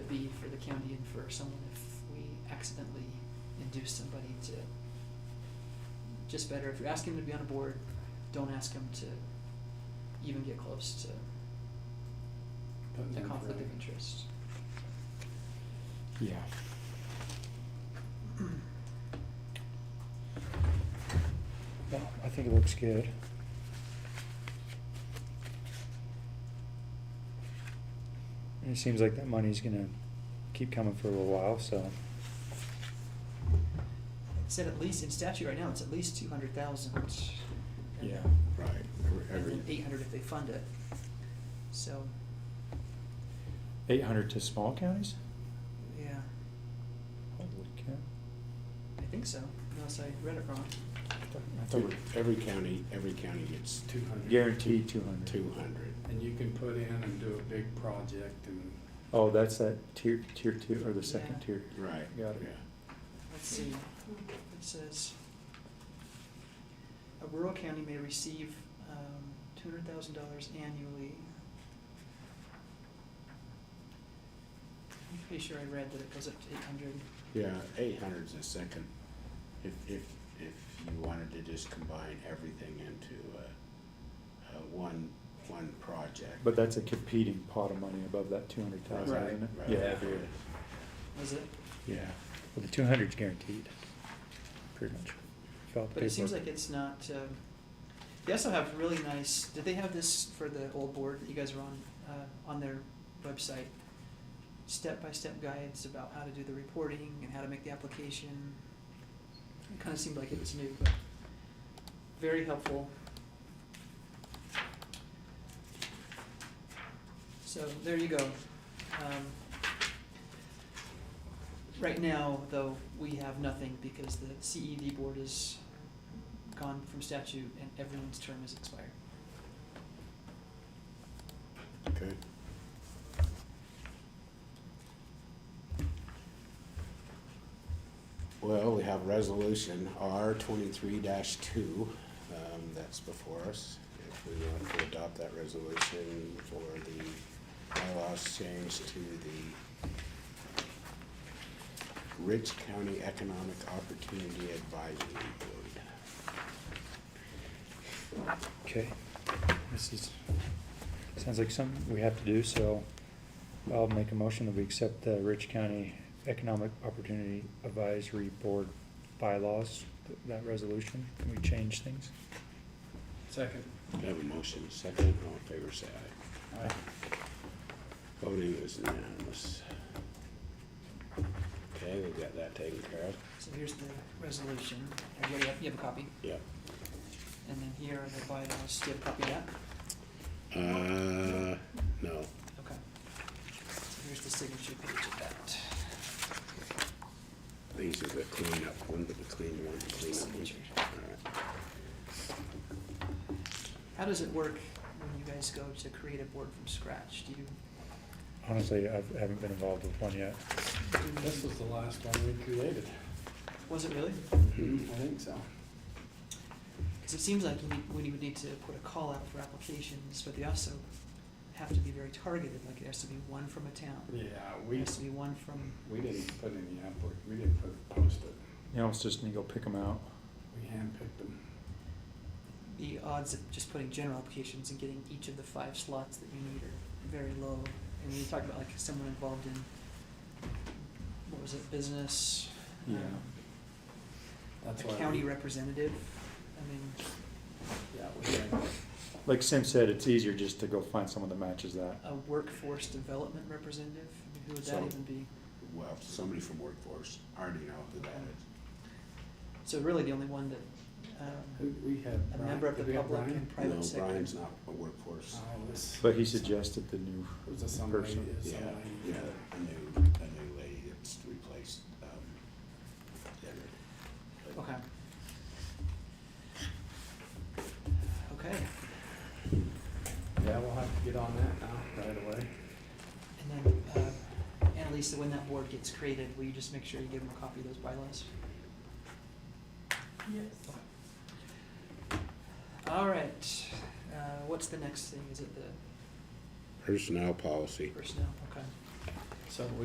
county and for someone if we accidentally induce somebody to. Just better, if you're asking them to be on a board, don't ask them to even get close to Putting the them conflict further. of interest. Yeah. Well, I think it looks good. And it seems like that money's gonna keep coming for a little while, so, It said at least, in statute right now, it's at least two hundred thousand. Yeah. Right, And every, then every, eight hundred if they fund it. So, eight hundred to small counties? yeah, Holy cow. I think so, unless I read it wrong. I thought- I thought every- every we- county, every county gets Two hundred. Guaranteed two hundred. two hundred. And you can put in and do a big project and Oh, that's that tier, tier two, or the second Yeah. tier. Right, yeah. Got it. Let's see, it says, a rural county may receive, um, two hundred thousand dollars annually. I'm pretty sure I read that it goes up to eight hundred. Yeah, eight hundred's a second, if, if, if you wanted to just combine everything into, uh, uh, one, one project. But that's a competing pot of money above that two hundred thousand, Right, isn't it? right. Yeah, every year. Was it? Yeah, Well, the two hundred's guaranteed, pretty much. Felt But it seems paperwork. like it's not, um, they also have really nice, did they have this for the old board that you guys are on, uh, on their website? Step-by-step guides about how to do the reporting and how to make the application. It kinda seemed like it was new, but very helpful. So there you go. Um, Right now, though, we have nothing because the CED board is gone from statute and everyone's term is expired. good. Well, we have resolution R twenty-three two, um, that's before us. If we want to adopt that resolution for the bylaws change to the Rich County Economic Opportunity Advisory Board. Okay, this is, sounds like something we have to do, so I'll make a motion that we accept the Rich County Economic Opportunity Advisory Board bylaws, th- that resolution, can we change things? second. I have a motion, second, all in favor, say aye. Voting is unanimous. Okay, we've got that taken care of. So here's the resolution. Everybody have, you have a copy? Yep. And then here are the bylaws. Do you have a copy of that? Uh, no. Okay. So here's the signature page of that. These are the cleanup one, but the clean one, the cleanup one. Signature. All How does it work when you guys go to create a board from scratch? Do you, Honestly, I haven't been involved with one yet. do This you, was the last one we created. was it really? Hmm. I think so. Because it seems like you need, we would need to put a call out for applications, but they also have to be very targeted, like it has to be one from a town. Yeah, It we, has to be one from, we didn't put any effort, we didn't put, post it. You almost just need to go pick them out. We handpicked them. the odds of just putting general applications and getting each of the five slots that you need are very low. And when you talk about like someone involved in, what was it, business? um, Yeah. That's A why. county we- representative, I mean, Yeah, we handpicked. Like Sim said, it's easier just to go find someone that matches that. a workforce development representative, I mean, who would that So- even be? right. Well, somebody from workforce, I already know who that is. So really the only one that, We, um, we had. a Brian- member of the did we have public Brian? and private sector. No, Brian's not a workforce. Oh, this- But he suggested the new It was a some lady, person. some Yeah, lady. yeah, a new, a new lady that's replaced, um, Debbie. But- Okay. Okay, Yeah, we'll have to get on that now, right away. and then, uh, Annalisa, when that board gets created, will you just make sure you give them a copy of those bylaws? Yes. All right, uh, what's the next thing? Is it the Personnel policy. personnel? Okay. So